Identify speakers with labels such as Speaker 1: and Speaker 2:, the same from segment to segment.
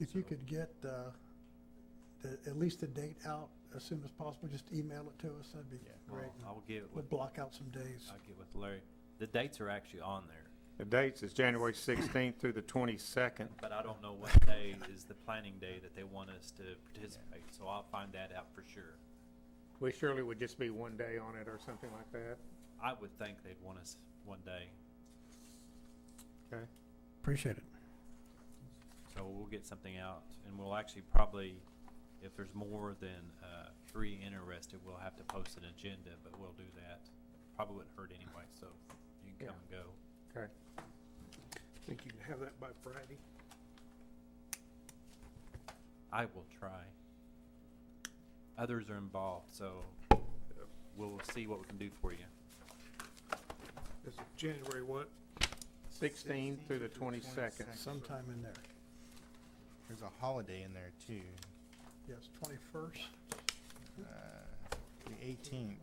Speaker 1: If you could get, uh, the, at least the date out as soon as possible, just email it to us, that'd be
Speaker 2: Yeah, I'll-
Speaker 1: great.
Speaker 2: Um, I'll get it
Speaker 1: We'll
Speaker 2: with,
Speaker 1: block out some days.
Speaker 2: I'll get with Larry. The dates are actually on there,
Speaker 3: The dates is January 16th through the 22nd.
Speaker 2: but I don't know what day is the planning day that they want us to participate, so I'll find that out for sure.
Speaker 3: We surely would just be one day on it or something like that.
Speaker 2: I would think they'd want us one day,
Speaker 3: Okay.
Speaker 1: Appreciate it.
Speaker 2: so we'll get something out, and we'll actually probably, if there's more than, uh, three interested, we'll have to post an agenda, but we'll do that. Probably wouldn't hurt anyway, so you can come and go.
Speaker 3: Okay.
Speaker 4: Think you can have that by Friday?
Speaker 2: I will try. Others are involved, so we'll see what we can do for you.
Speaker 4: This is January what?
Speaker 3: 16 through the 22nd.
Speaker 1: Sometime in there.
Speaker 5: There's a holiday in there too.
Speaker 1: Yes, twenty-first,
Speaker 5: Uh, the 18th.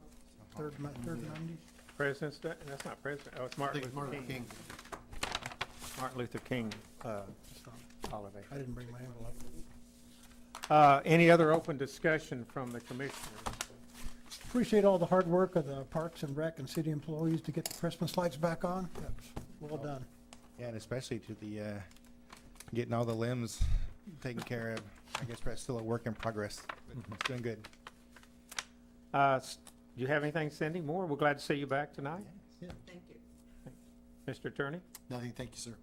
Speaker 1: third Mon, third Monday.
Speaker 3: President's Day, that's not President, oh, it's
Speaker 5: I
Speaker 3: Martin
Speaker 5: think it's
Speaker 3: Luther
Speaker 5: Martin
Speaker 3: King.
Speaker 5: King.
Speaker 3: Martin Luther King uh,
Speaker 1: It's not-
Speaker 3: holiday.
Speaker 1: I didn't bring my envelope.
Speaker 3: Uh, Any other open discussion from the commissioners?
Speaker 1: Appreciate all the hard work of the Parks and Rec and city employees to get the Christmas lights back on. That's well done.
Speaker 5: Yeah, and especially to the, uh, getting all the limbs taken care of. I guess that's still a work in progress, but it's doing good.
Speaker 3: Uh, s- Do you have anything, Cindy Moore? We're glad to see you back tonight.
Speaker 6: Thank you.
Speaker 3: Mr. Attorney?
Speaker 5: Nothing, thank you, sir.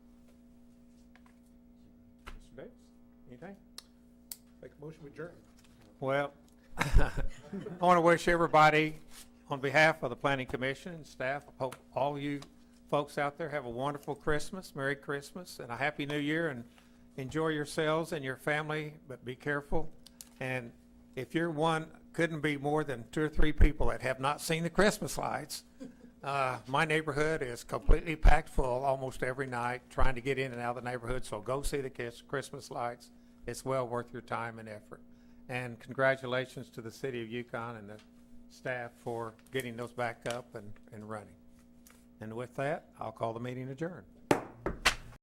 Speaker 3: Mr. Davis? Anything?
Speaker 4: Make a motion, we adjourn.
Speaker 3: Well, I want to wish everybody, on behalf of the planning commission and staff, hope all you folks out there have a wonderful Christmas, Merry Christmas, and a Happy New Year, and enjoy yourselves and your family, but be careful. And if you're one, couldn't be more than two or three people that have not seen the Christmas lights. Uh, my neighborhood is completely packed full almost every night, trying to get in and out of the neighborhood, so go see the kids, Christmas lights. It's well worth your time and effort. And congratulations to the city of Yukon and the staff for getting those back up and, and running. And with that, I'll call the meeting adjourned.